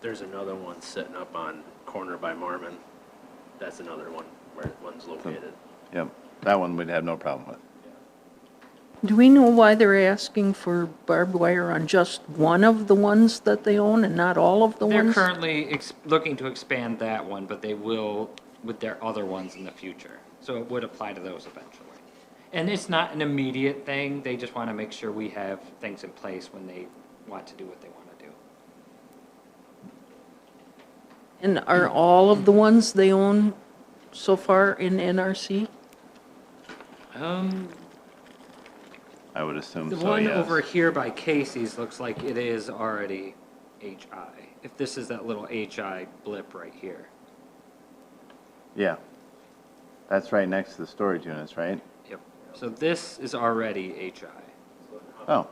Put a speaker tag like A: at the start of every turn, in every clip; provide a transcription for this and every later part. A: There's another one sitting up on corner by Marmon. That's another one where one's located.
B: Yep, that one we'd have no problem with.
C: Do we know why they're asking for barbed wire on just one of the ones that they own and not all of the
D: They're
C: ones?
D: currently ex- looking to expand that one, but they will with their other ones in the future. So it would apply to those eventually. And it's not an immediate thing, they just want to make sure we have things in place when they want to do what they want to do.
C: And are all of the ones they own so far in NRC?
D: Um,
B: I would assume
D: the
B: so,
D: one over
B: yes.
D: here by Casey's looks like it is already HI. If this is that little HI blip right here.
B: Yeah. That's right next to the storage units, right?
D: Yep. So this is already HI.
A: The
B: Oh,
A: one on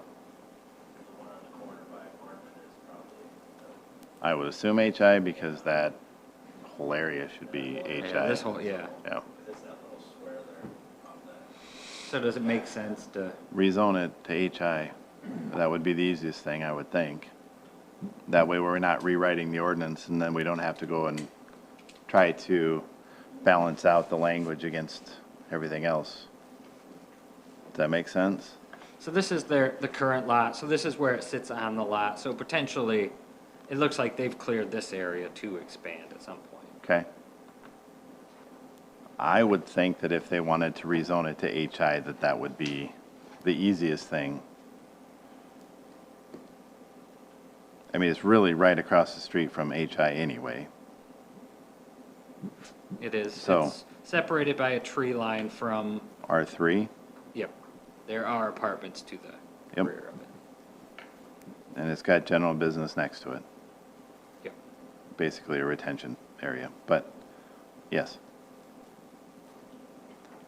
A: the corner by Marmon is probably,
B: I would assume HI because that whole area should be
D: Yeah,
B: HI.
D: this whole, yeah.
B: Yeah,
A: it's that little square there on the,
D: So does it make sense to?
B: rezone it to HI. That would be the easiest thing, I would think. That way we're not rewriting the ordinance and then we don't have to go and try to balance out the language against everything else. Does that make sense?
D: So this is their, the current lot, so this is where it sits on the lot, so potentially, it looks like they've cleared this area to expand at some point.
B: Okay. I would think that if they wanted to rezone it to HI, that that would be the easiest thing. I mean, it's really right across the street from HI anyway.
D: It is,
B: So-
D: it's separated by a tree line from,
B: R3,
D: yep, there are apartments to the
B: Yep.
D: rear of it.
B: and it's got general business next to it,
D: Yep.
B: basically a retention area, but yes.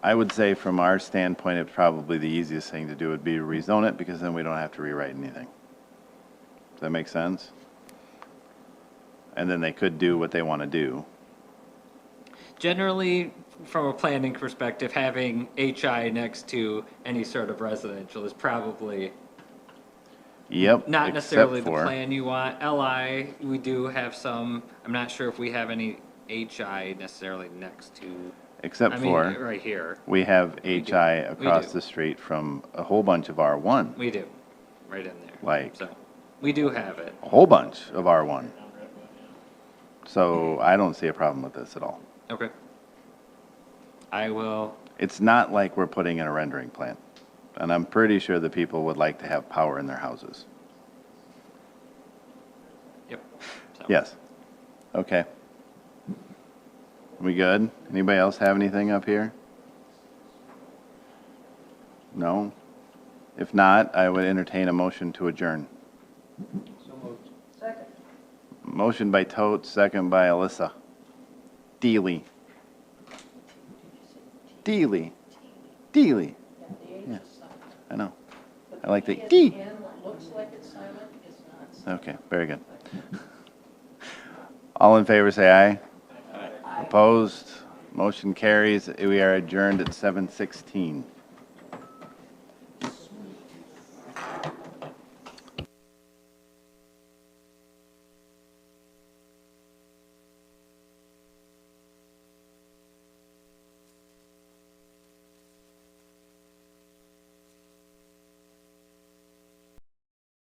B: I would say from our standpoint, it probably the easiest thing to do would be to rezone it because then we don't have to rewrite anything. Does that make sense? And then they could do what they want to do.
D: Generally, from a planning perspective, having HI next to any sort of residential is probably
B: Yep.
D: not
B: except
D: necessarily the
B: for-
D: plan you want. LI, we do have some, I'm not sure if we have any HI necessarily next to
B: Except
D: I mean,
B: for,
D: right here.
B: we have
D: do.
B: HI
D: We
B: across
D: do.
B: the street from a whole bunch of R1,
D: We do, right in there.
B: Like-
D: So, we do have it.
B: a whole bunch of R1. So I don't see a problem with this at all.
D: Okay. I will,
B: It's not like we're putting in a rendering plant. And I'm pretty sure the people would like to have power in their houses.
D: yep. So,
B: Yes. Okay. We good? Anybody else have anything up here? No? If not, I would entertain a motion to adjourn. Second. Motion by Totes, second by Alyssa. Deely. Deely. Deely. Yeah, I know. I like the D. Okay, very good. All in favor, say aye. Opposed? Motion carries. We are adjourned at 7:16.